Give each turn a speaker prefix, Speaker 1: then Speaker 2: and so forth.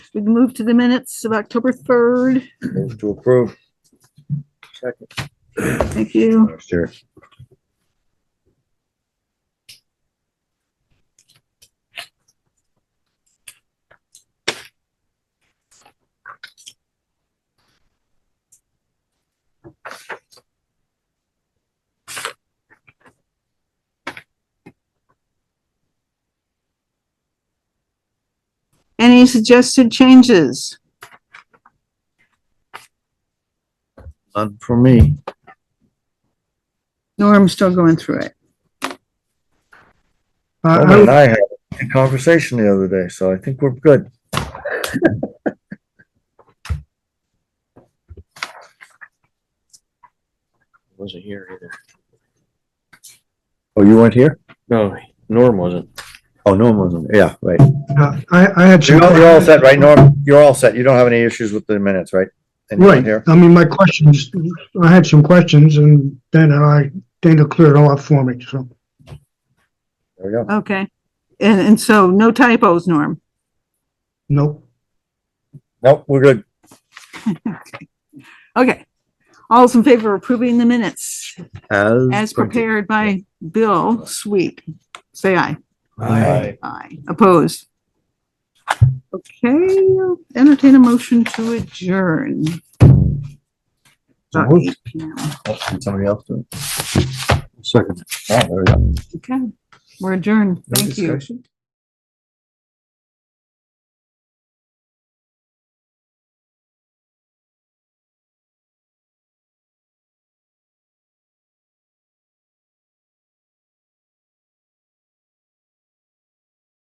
Speaker 1: we can move to the minutes of October third.
Speaker 2: Move to approve.
Speaker 1: Thank you.
Speaker 2: Sure.
Speaker 1: Any suggested changes?
Speaker 2: None for me.
Speaker 1: Norm's still going through it. Uh,
Speaker 2: Norman and I had a conversation the other day, so I think we're good.
Speaker 3: Wasn't here either.
Speaker 2: Oh, you weren't here?
Speaker 3: No, Norm wasn't.
Speaker 2: Oh, Norm wasn't. Yeah, right.
Speaker 4: Yeah, I, I had.
Speaker 2: You're you're all set, right, Norm? You're all set. You don't have any issues with the minutes, right? And you weren't
Speaker 4: Right,
Speaker 2: here?
Speaker 4: I mean, my questions, I had some questions and then I, Dana cleared it all up for me, so.
Speaker 2: There we go.
Speaker 1: Okay, and, and so no typos, Norm.
Speaker 4: Nope,
Speaker 2: Nope, we're good.
Speaker 1: Okay. All's in favor of approving the minutes as
Speaker 2: printed.
Speaker 1: prepared by Bill Sweet. Say aye.
Speaker 2: Aye.
Speaker 1: Aye. Opposed? Okay, entertain a motion to adjourn.
Speaker 2: So
Speaker 1: About
Speaker 2: moved.
Speaker 1: 8 p.m.
Speaker 2: Oh, can Somebody else do it? Second. Oh, there we go.
Speaker 1: Okay, we're adjourned.
Speaker 2: No
Speaker 1: Thank you.
Speaker 2: discussion?